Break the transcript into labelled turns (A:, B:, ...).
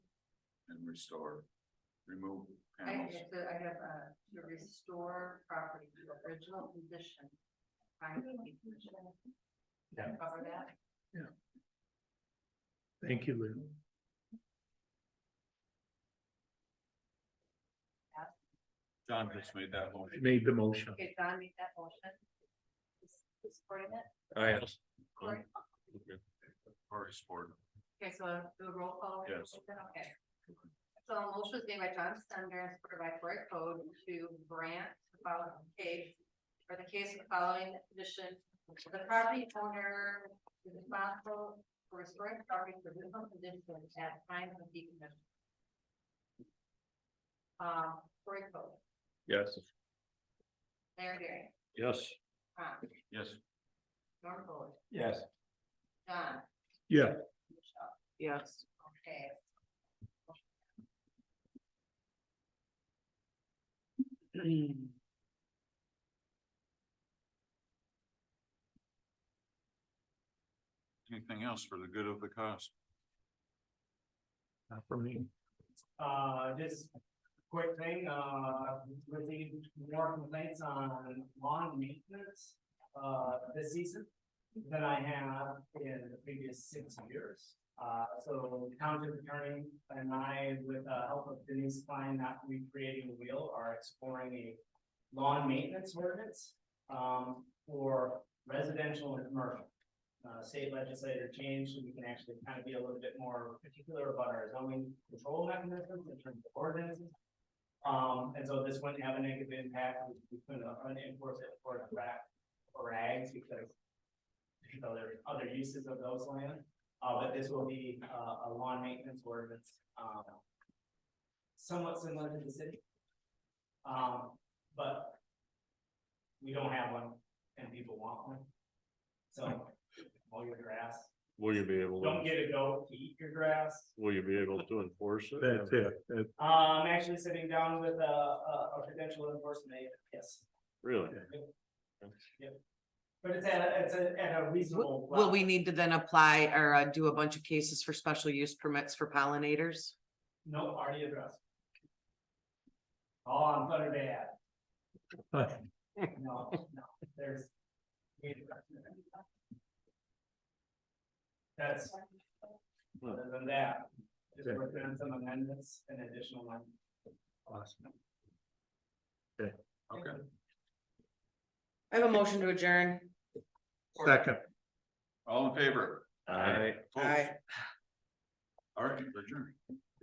A: restore, remove
B: I
A: panels.
B: have to, I have, uh, to restore property to original condition. Find the condition.
C: Yeah.
B: Cover that.
C: Thank you, Lou.
A: John just made that motion.
C: I made the motion.
B: Okay, John made that motion. Who's- who's Supporting it,
D: I,
B: Cory?
A: Or support.
B: Okay, so do a roll call.
A: Yes.
B: Okay. So a motion was made by John Stender, supported by Cory Code to grant the following case, or the case of the following condition. The property owner is responsible for restoring property to original condition at time of decommission. Uh, Cory Code,
D: yes.
B: Larry Gary,
D: Yes.
B: Ron,
A: Yes,
B: Norm Fuller,
D: Yes.
B: John,
C: Yeah,
B: Michelle,
E: Yes.
B: okay.
A: anything else for the good of the cause?
C: not for me.
F: Uh, just quick thing, uh, received more complaints on lawn maintenance, uh, this season than I have in the previous six years. Uh, so the township attorney and I, with the help of Denise Klein, not recreating the wheel, are exploring a lawn maintenance ordinance, um, for residential and commercial. Uh, state legislature changed, so we can actually kind of be a little bit more particular about our zoning control mechanisms in terms of ordinances. Um, and so this wouldn't have a negative impact, we- we couldn't unenforce it for a rack or rags because you know, there are other uses of those land, uh, but this will be, uh, a lawn maintenance ordinance, um, somewhat similar to the city. Um, but we don't have one and people want one. So mow your grass.
D: Will you be able, to?
F: Don't get a goat to eat your grass.
D: will you be able to enforce it?
C: That's it. That's
F: Uh, I'm actually sitting down with a, a, a potential enforcement agent, yes.
D: Really?
F: But it's at, a- it's a- at a reasonable.
E: Will we
F: level.
E: need to then apply or uh, do a bunch of cases for special use permits for pollinators?
F: No, already addressed. Oh, I'm Thunder Bay Ave. No, no, there's. That's, other than that, just working on some amendments and additional one.
C: awesome.
A: Okay.
E: I have a motion to adjourn.
C: Second.
A: All in favor?
D: Aye.
A: Opposed?
E: Aye.
A: All right, adjourn.